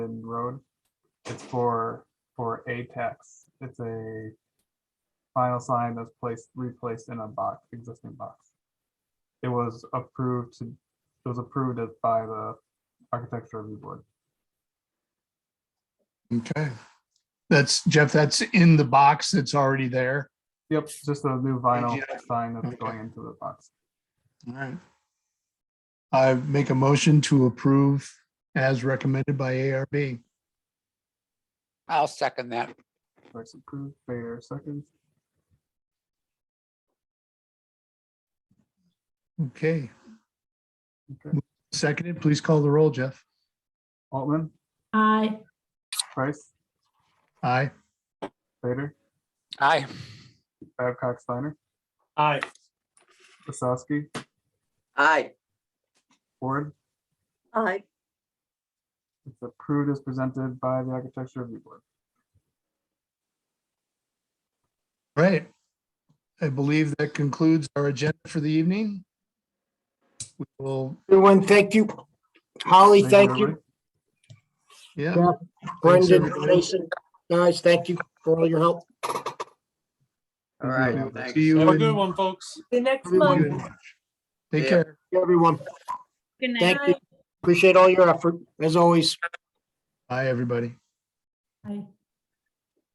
Road. It's for, for Apex. It's a final sign that's placed, replaced in a box, existing box. It was approved, to it was approved as by the Architecture Review Board. Okay. That's Jeff, that's in the box that's already there. Yep, just a new vinyl AGI. sign that's Okay. going into the box. All right. I make a motion to approve as recommended by ARB. I'll second that. That's approved, Fair seconds. Okay, Okay, seconded, please call the roll, Jeff. Altman, Aye. Price, Aye. Vader, Aye, Babcock, Steiner, aye, Wasowski, Aye. Ford. Aye. It's approved as presented by the Architecture Review Board. Right. I believe that concludes our agenda for the evening. We will, Everyone, thank you. Holly, thank you. everybody. yeah, Yeah. Thanks, Brendan, everybody. Jason, guys, thank you for all your help. All Thank right, see thanks. you. have a in- good one, folks. The next everyone. month. Take Yeah. care. Everyone, Good Thank you. appreciate all your effort, as always. Bye, everybody. Aye.